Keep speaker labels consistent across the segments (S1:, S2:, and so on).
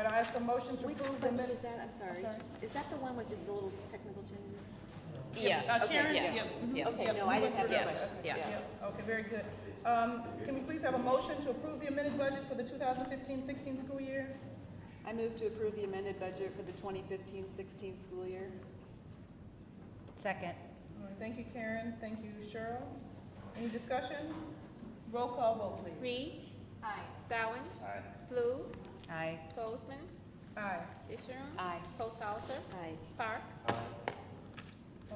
S1: I ask a motion to
S2: Which
S1: approve the
S2: budget
S1: minutes?
S2: is that, I'm sorry?
S1: sorry.
S2: Is that the one with just the little technical changes?
S3: Yes,
S1: Uh, Sharon?
S3: okay, yes, yes.
S2: Okay, no, I didn't have that.
S3: Yes, yeah.
S1: Yep, Okay, very good. Um, Can we please have a motion to approve the amended budget for the 2015-16 school year?
S4: I move to approve the amended budget for the 2015-16 school year.
S5: Second.
S1: All right, Thank you, Karen. Thank you, Cheryl. Any discussion? Roll call vote, please.
S3: Reed. Aye. Zawin. Aye. Flu.
S5: Aye.
S3: Bozeman.
S1: Aye.
S3: Disharum.
S4: Aye.
S3: Posthauser.
S2: Aye.
S3: Park.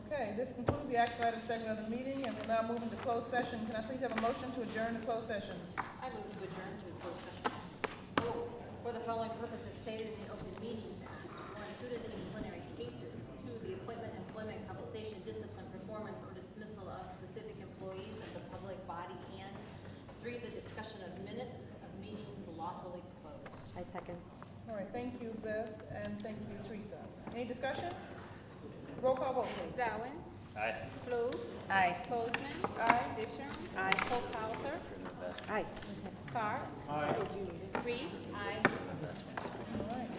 S1: Okay, this concludes the action item segment of the meeting, and we're now moving to closed session. Can I please have a motion to adjourn the closed session?
S6: I move to adjourn to a closed session. Oh, For the following purposes stated in the Open Meetings Act, or in suited disciplinary cases, two, the appointment, employment, compensation, discipline, performance, or dismissal of specific employees of the public body, and three, the discussion of minutes of meetings lawfully closed.
S2: I second.
S1: All right, thank you, Beth, and thank you, Teresa. Any discussion? Roll call vote, please.
S3: Zawin. Aye. Flu.
S5: Aye.
S3: Bozeman.
S1: Aye.
S3: Disharum.
S2: Aye.
S3: Posthauser.
S2: Aye.
S3: Park. Aye. Reed. Aye.
S1: All right,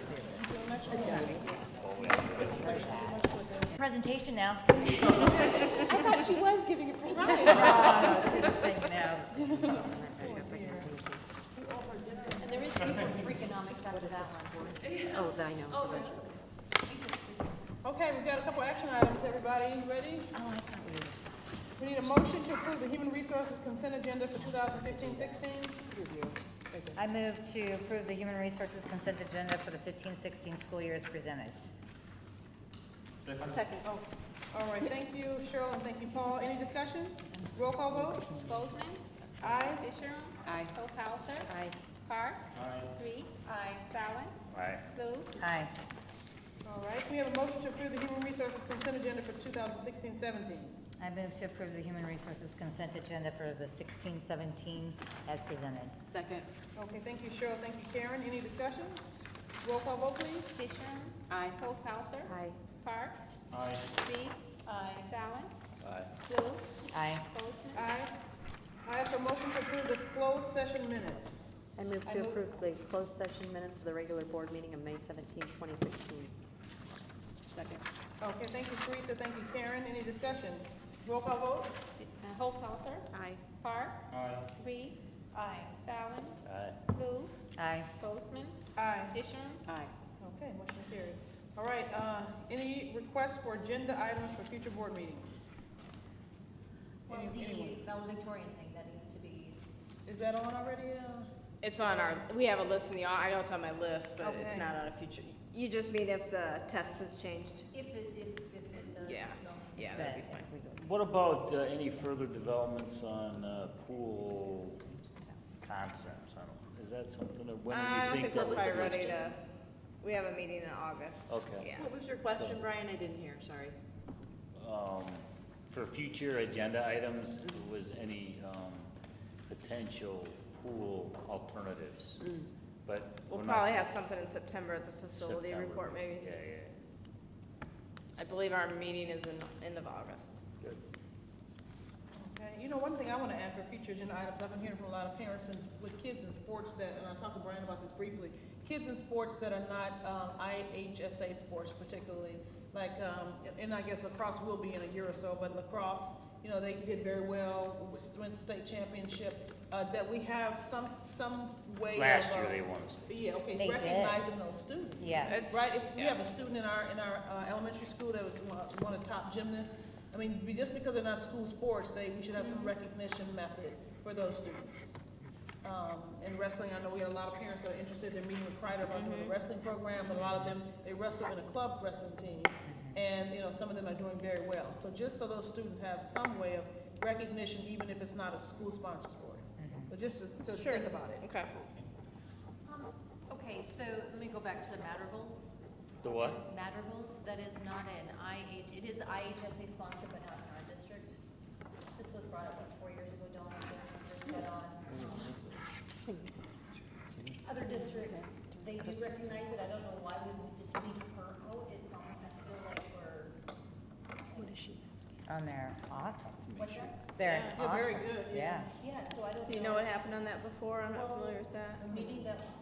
S1: until next week.
S5: Presentation now.
S2: I thought she was giving a presentation.
S5: She's just saying now.
S6: And there is secret freakonomics after that one.
S2: Oh, I know. Oh,
S1: Okay, we've got a couple action items, everybody, You ready?
S2: I can't read this.
S1: We need a motion to approve the human resources consent agenda for 2015-16.
S5: I move to approve the human resources consent agenda for the 15-16 school year as presented.
S2: Second.
S1: Oh, all right, thank you, Cheryl, and thank you, Paul. Any discussion? Roll call vote?
S3: Bozeman.
S1: Aye.
S3: Disharum.
S4: Aye.
S3: Posthauser.
S2: Aye.
S3: Park. Aye. Reed. Aye. Zawin. Aye. Flu.
S5: Aye.
S1: All right, can we have a motion to approve the human resources consent agenda for 2016-17?
S5: I move to approve the human resources consent agenda for the 16-17 as presented.
S4: Second.
S1: Okay, thank you, Cheryl, thank you, Karen. Any discussion? Roll call vote, please.
S3: Disharum.
S4: Aye.
S3: Posthauser.
S2: Aye.
S3: Park.
S7: Aye.
S3: Reed.
S1: Aye.
S3: Zawin.
S7: Aye.
S3: Flu.
S5: Aye.
S3: Bozeman.
S1: Aye. I ask for motion to approve the closed session minutes.
S2: I move
S1: I
S2: to
S1: move-
S2: approve the closed session minutes for the regular board meeting of May 17, 2016.
S4: Second.
S1: Okay, thank you, Teresa, thank you, Karen. Any discussion? Roll call vote?
S3: Uh, Posthauser.
S2: Aye.
S3: Park.
S7: Aye.
S3: Reed.
S1: Aye.
S3: Zawin.
S7: Aye.
S3: Flu.
S5: Aye.
S3: Bozeman.
S1: Aye.
S3: Disharum.
S4: Aye.
S1: Okay, motion carried. All right, uh, any requests for agenda items for future board meetings?
S6: Well,
S1: Any- anyone?
S6: the valedictorian thing that needs to be
S1: Is that on already? uh?
S8: It's on our, we have a list in the, I know it's on my list, but
S1: Okay.
S8: it's not on a future.
S3: You just mean if the test has changed?
S6: If it, if, if it does.
S8: Yeah, yeah, that'd be fine.
S7: What about uh, any further developments on uh, pool concepts? I don't- Is that something that, when
S8: Uh, I
S7: do
S8: don't
S7: you think
S8: think we're
S7: that was
S8: probably ready
S7: listed?
S8: to, we have a meeting in August.
S7: Okay.
S8: Yeah.
S4: was your
S7: question,
S4: Brian? I didn't hear, sorry.
S7: Um, For future agenda items, was any um, potential pool alternatives?
S8: Mm.
S7: But
S8: We'll
S7: we're not-
S8: probably have something in September at the facility
S7: September.
S8: report, maybe.
S7: Yeah, yeah,
S8: I believe our meeting is in, end of August.
S7: good.
S1: Okay, you know, one thing I want to add for future agenda items, I've been hearing from a lot of parents and with kids in sports that, and I talked to Brian about this briefly, kids in sports that are not um, IHSA sports particularly, like, um, and I guess lacrosse will be in a year or so, but lacrosse, you know, they did very well, went to state championship, uh, that we have some, some
S8: Oh,
S1: way of.
S7: Last
S1: uh,
S7: year they won.
S1: Yeah,
S5: They
S1: okay,
S5: did.
S1: recognizing those students.
S5: Yes.
S8: It's-
S1: Right, if we
S8: yeah.
S1: have a student in our, in our uh, elementary school that was one- one of the top gymnasts, I mean, we- just because they're not school sports, they, we should have some
S5: Mm-hmm.
S1: recognition method for those students. Um, in wrestling, I know we had a lot of parents that are interested, they're meeting with Kreider about
S5: Mm-hmm.
S1: doing a wrestling program, but a lot of them, they wrestle in a club wrestling team.
S5: Mm-hmm.
S1: And, you know, some of them are doing very well. So just so those students have some way of recognition, even if it's not a school-sponsored sport.
S5: Mm-hmm.
S1: But just to, to think about it.
S8: Okay.
S6: Um, Okay, so let me go back to the madrigals.
S7: The what?
S6: Madrigals, that is not an IH, it is IHSA sponsored, but not in our district. This was brought up like four years ago, Dawn, I think, when we first got on. Other districts, they do recognize it, I don't know why we would just leave her out, it's on, I feel like we're. What is she?
S5: On there. Awesome.
S6: What's that?
S5: They're
S1: Yeah,
S5: awesome.
S1: very good, yeah.
S6: Yeah, so I don't.
S8: Do you know what happened on that before? I'm not familiar with that.
S6: The meeting that